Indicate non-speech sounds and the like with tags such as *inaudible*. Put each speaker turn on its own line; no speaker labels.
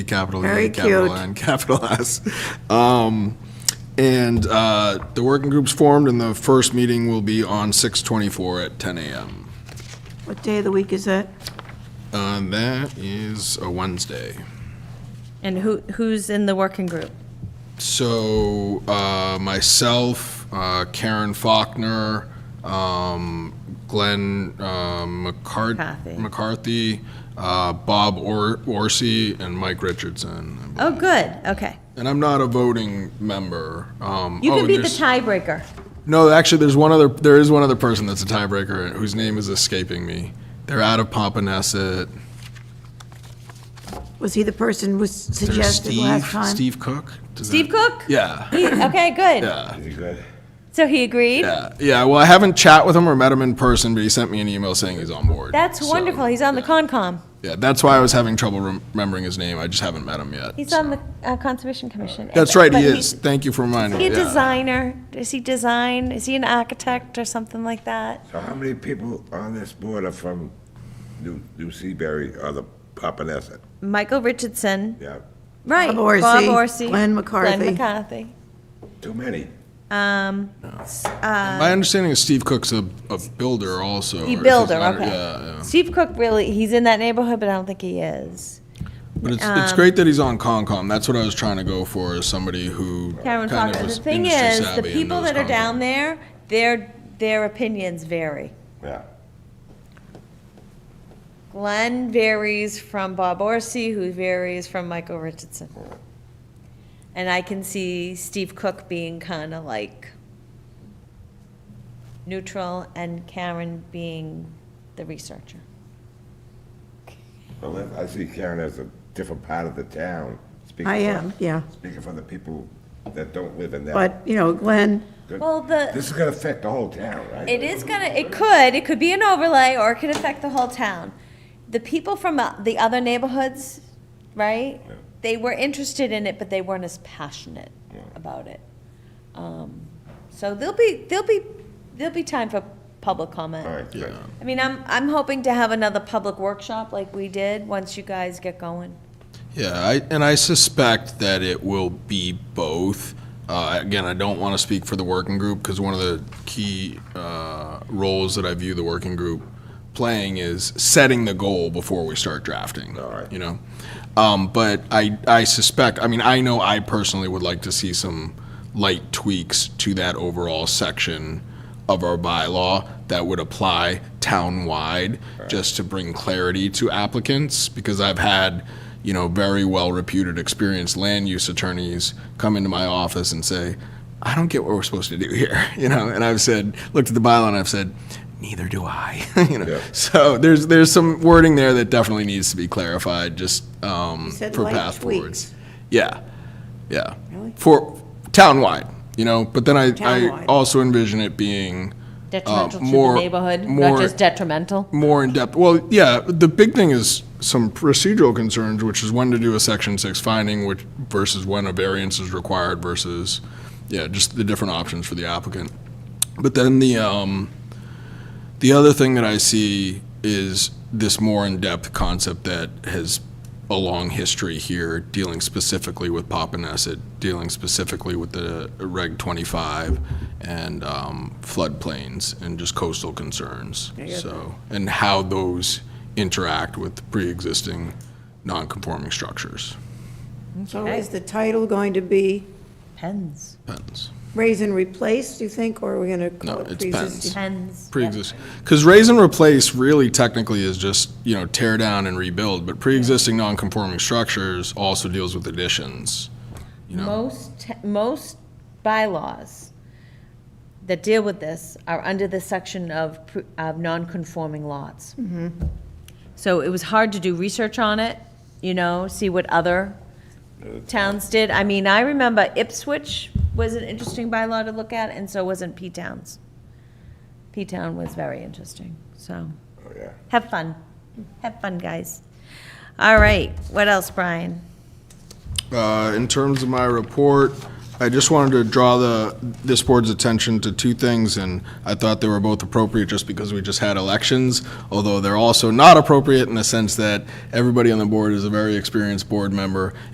capital
Very
E, capital
cute.
N, *laughs* capital S. Um, and uh, the working group's formed, and the first meeting will be on 6:24 at 10 a.m.
What day of the week is that?
Uh, that is a Wednesday.
And who, who's in the working group?
So uh, myself, uh, Karen Faulkner, um, Glenn uh, McCart-
McCarthy.
McCarthy, uh, Bob or- Orsi, and Mike Richardson.
Oh, good, okay.
And I'm not a voting member. Um,
You
oh,
can be the
there's-
tiebreaker.
No, actually, there's one other. There is one other person that's a tiebreaker whose name is escaping me. They're out of Pompanesset.
Was he the person who
There's
suggested last
Steve-
time?
Steve Cook. Does
Steve
that-
Cook?
Yeah,
He- Okay, good.
yeah,
So he agreed?
yeah, yeah. Well, I haven't chat with him or met him in person, but he sent me an email saying he's on board.
That's
So,
wonderful, he's on the Concom.
Yeah, that's why I was having trouble rem- remembering his name. I just haven't met him yet.
He's
so.
on the uh, Conservation Commission.
That's right.
But
He is.
he's-
Thank you for reminding
He
me.
a
yeah.
designer? Is he design? Is he an architect or something like that?
So how many people on this board are from New, New Seabury or the Papaneset?
Michael Richardson,
Yeah,
right?
Bob Orsi,
Bob Orsi,
Glenn McCarthy.
Glenn McCarthy.
too many.
Um, s- uh,
My understanding is Steve Cook's a, a builder also.
He
or
builder,
designer,
okay.
Yeah, yeah.
Steve Cook really, he's in that neighborhood, but I don't think he is.
But it's,
Um,
it's great that he's on Concom. That's what I was trying to go for, is somebody who
Karen
kind of
Faulkner.
is
The thing
industry
is, the
savvy and
people
knows
that are down
Concom.
there, their, their opinions vary.
Yeah.
Glenn varies from Bob Orsi, who varies from Michael Richardson. And I can see Steve Cook being kind of like neutral and Karen being the researcher.
Well, I- I see Karen as a different part of the town. speaking
I
for-
am, yeah.
Speaking for the people that don't live in that.
But, you know, Glenn,
Well, the,
This is gonna affect the whole town, right?
it is gonna, it could, it could be an overlay or it could affect the whole town. The people from uh, the other neighborhoods, right?
Yeah.
They were interested in it, but they weren't as passionate about it. Um, So there'll be, there'll be, there'll be time for public comment.
All right, good.
Yeah.
I mean, I'm, I'm hoping to have another public workshop like we did, once you guys get going.
Uh, Yeah, I, and I suspect that it will be both. Uh, again, I don't want to speak for the working group because one of the key uh, roles that I view the working group playing is setting the goal before we start drafting.
All right.
You know, um, but I I suspect. I mean, I know I personally would like to see some light tweaks to that overall section of our bylaw that would apply town-wide, just to bring clarity to applicants, because I've had, you know, very well-reputed, experienced land use attorneys come into my office and say, I don't get what we're supposed to do here, *laughs* you know, and I've said, looked at the bylaw and I've said, neither do I, *laughs* you know.
Yeah.
So there's, there's some wording there that definitely needs to be clarified, just, um,
said
for
light
path
tweaks.
forwards. Yeah, yeah.
Really?
For townwide, you know, but then I, I
Townwide.
also envision it being
Detrimental to the
more-
neighborhood,
more-
not just detrimental.
more in depth. Well, yeah, the big thing is some procedural concerns, which is when to do a section six finding, which versus when a variance is required versus, yeah, just the different options for the applicant. But then the, um, the other thing that I see is this more in-depth concept that has a long history here, dealing specifically with Papaneset, dealing specifically with the Reg 25 and um, floodplains and just coastal concerns. So, and how those interact with pre-existing non-conforming structures.
so is the title going to be
Pens.
Depends.
Raise and Replace, do you think, or are we going to
No,
call it
it's
pre-existing?
Pens.
Pre-existing, because raise and replace really technically is just, you know, tear down and rebuild, but pre-existing non-conforming structures also deals with additions. You know,
Most, most bylaws that deal with this are under the section of, pr- of non-conforming lots. So it was hard to do research on it, you know, see what other towns did. I mean, I remember Ipswich was an interesting bylaw to look at, and so wasn't P-Towns. P-Town was very interesting, so.
Oh, yeah.
Have fun. Have fun, guys. All right, what else, Brian?
Uh, in terms of my report, I just wanted to draw the, this board's attention to two things, and I thought they were both appropriate just because we just had elections, although they're also not appropriate in the sense that everybody on the board is a very experienced board member,